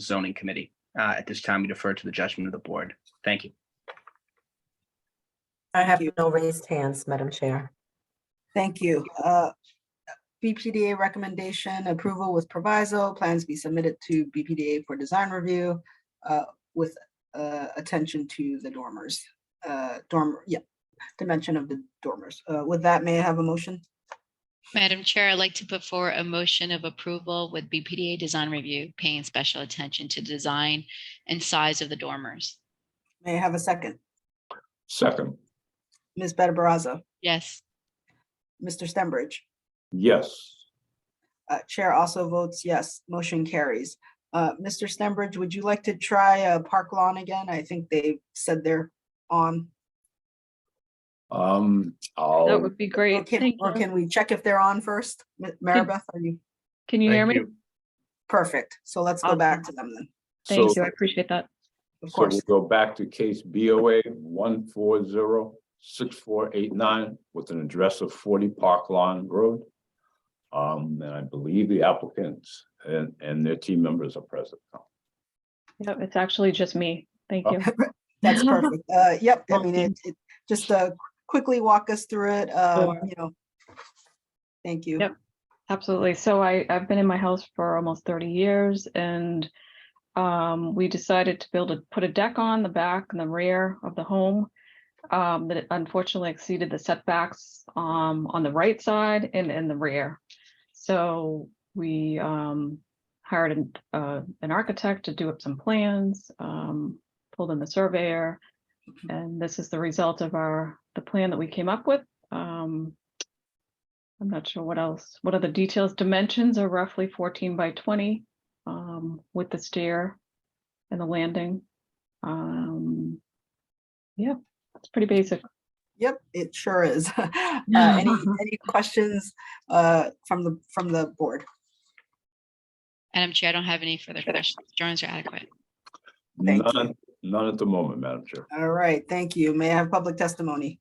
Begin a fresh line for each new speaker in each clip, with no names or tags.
zoning committee. Uh, At this time, we defer to the judgment of the board. Thank you.
I have
you.
no raised hands, Madam Chair.
Thank you. Uh, BPDA recommendation approval with proviso, plans be submitted to BPDA for design review uh, with uh, attention to the dormers, uh, dorm, yeah, dimension of the dormers. Uh, With that, may I have a motion?
Madam Chair, I'd like to put forward a motion of approval with BPDA Design Review paying special attention to design and size of the dormers.
May I have a second?
Second,
Ms. Better Barazza,
Yes,
Mr. Stenbridge,
yes.
uh, Chair also votes yes, motion carries. Uh, Mr. Stenbridge, would you like to try uh, Park Lawn again? I think they said they're on.
Um,
Oh.
That
I'll,
would be
Or
great.
can,
Thank
or
you.
can we check if they're on first? M- Maribeth, are you?
Can you hear
Thank
me?
you.
Perfect. So let's go
Awesome.
back to them then,
so,
Thank you. I
so
appreciate that.
Oh, of
we'll
course.
go back to case BOA one four zero six four eight nine with an address of forty Park Lawn Road. Um, and I believe the applicants and, and their team members are present.
Yep, it's actually just me. Thank
Oh.
you.
That's perfect. Uh, yep, I mean, it, it, just uh, quickly walk us through it, um,
Sure.
you know. Thank you.
Yep. Absolutely. So I, I've been in my house for almost 30 years and um, we decided to build a, put a deck on the back and the rear of the home. Um, that unfortunately exceeded the setbacks um, on the right side and in the rear. So we um, hired an, uh, an architect to do up some plans, um, pulled in the surveyor. And this is the result of our, the plan that we came up with. Um, I'm not sure what else, what are the details? Dimensions are roughly fourteen by twenty, um, with the stair and the landing. Um, yeah, it's pretty basic.
Yep, it sure is. Uh, Any, any questions uh, from the, from the board?
Madam Chair, I don't have any further questions. Drawings are adequate.
Thank you.
None, none at the moment, Madam Chair.
All right, thank you. May I have public testimony?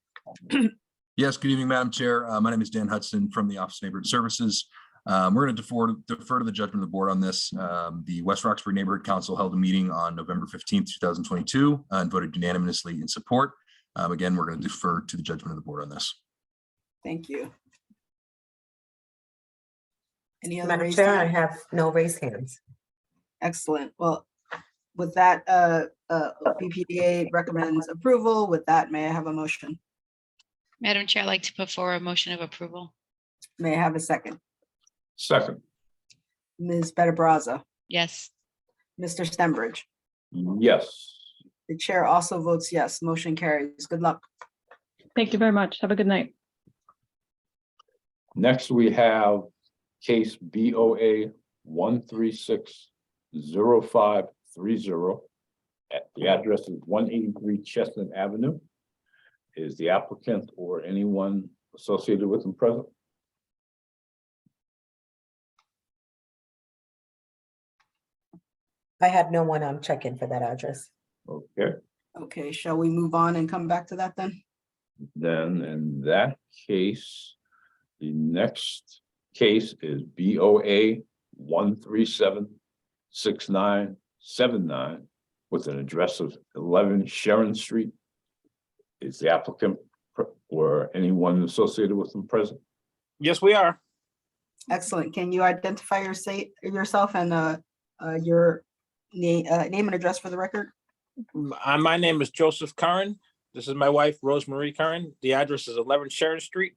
Yes, good evening, Madam Chair. Uh, My name is Dan Hudson from the Office of Neighborhood Services. Um, We're going to defer defer to the judgment of the board on this. Um, The West Roxbury Neighborhood Council held a meeting on November 15th, 2022, uh, and voted unanimously in support. Um, Again, we're going to defer to the judgment of the board on this.
Thank you. Any other
Madam
raised
Chair, I
hand?
have no raised hands.
Excellent. Well, with that, uh, uh, BPDA recommends approval. With that, may I have a motion?
Madam Chair, I'd like to put forward a motion of approval.
May I have a second?
Second,
Ms. Better Brazza,
Yes,
Mr. Stenbridge.
yes.
The chair also votes yes. Motion carries. Good luck.
Thank you very much. Have a good night.
Next, we have case BOA one three six zero five three zero. The address is one eighty-three Chestnut Avenue. Is the applicant or anyone associated with them present?
I had no one um check in for that address.
Okay,
Okay, shall we move on and come back to that then?
then in that case, the next case is BOA one three seven six nine seven nine with an address of eleven Sharon Street. Is the applicant pr- or anyone associated with them present?
Yes, we are.
Excellent. Can you identify your say, yourself and, uh, uh, your name, uh, name and address for the record?
M- uh, My name is Joseph Curran. This is my wife, Rosemarie Curran. The address is 11 Sharon Street,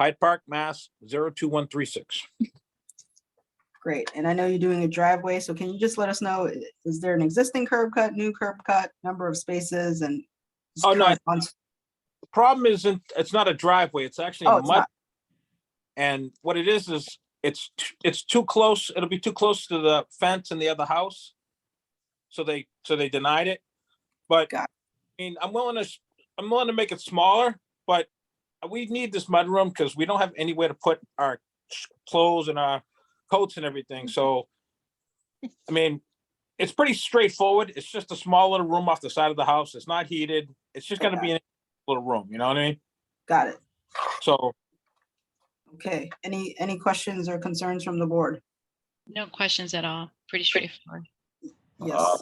Hyde Park, Mass. 02136.
Great, and I know you're doing a driveway, so can you just let us know, i- is there an existing curb cut, new curb cut, number of spaces and? just
Oh, no,
current on-
The Problem isn't, it's not a driveway, it's actually
Oh,
a
it's
mud.
not.
And what it is, is it's, t- it's too close, it'll be too close to the fence in the other house. So they, so they denied it. But, I
Got
mean, I'm willing to, s- I'm willing to make it smaller, but we need this mudroom because we don't have anywhere to put our sh- clothes and our coats and everything, so. I mean, it's pretty straightforward. It's just a small little room off the side of the house. It's not heated. It's just gonna be a little room, you know what I mean?
Got it,
So,
okay, any, any questions or concerns from the board?
no questions at all. Pretty straightforward.
Yes.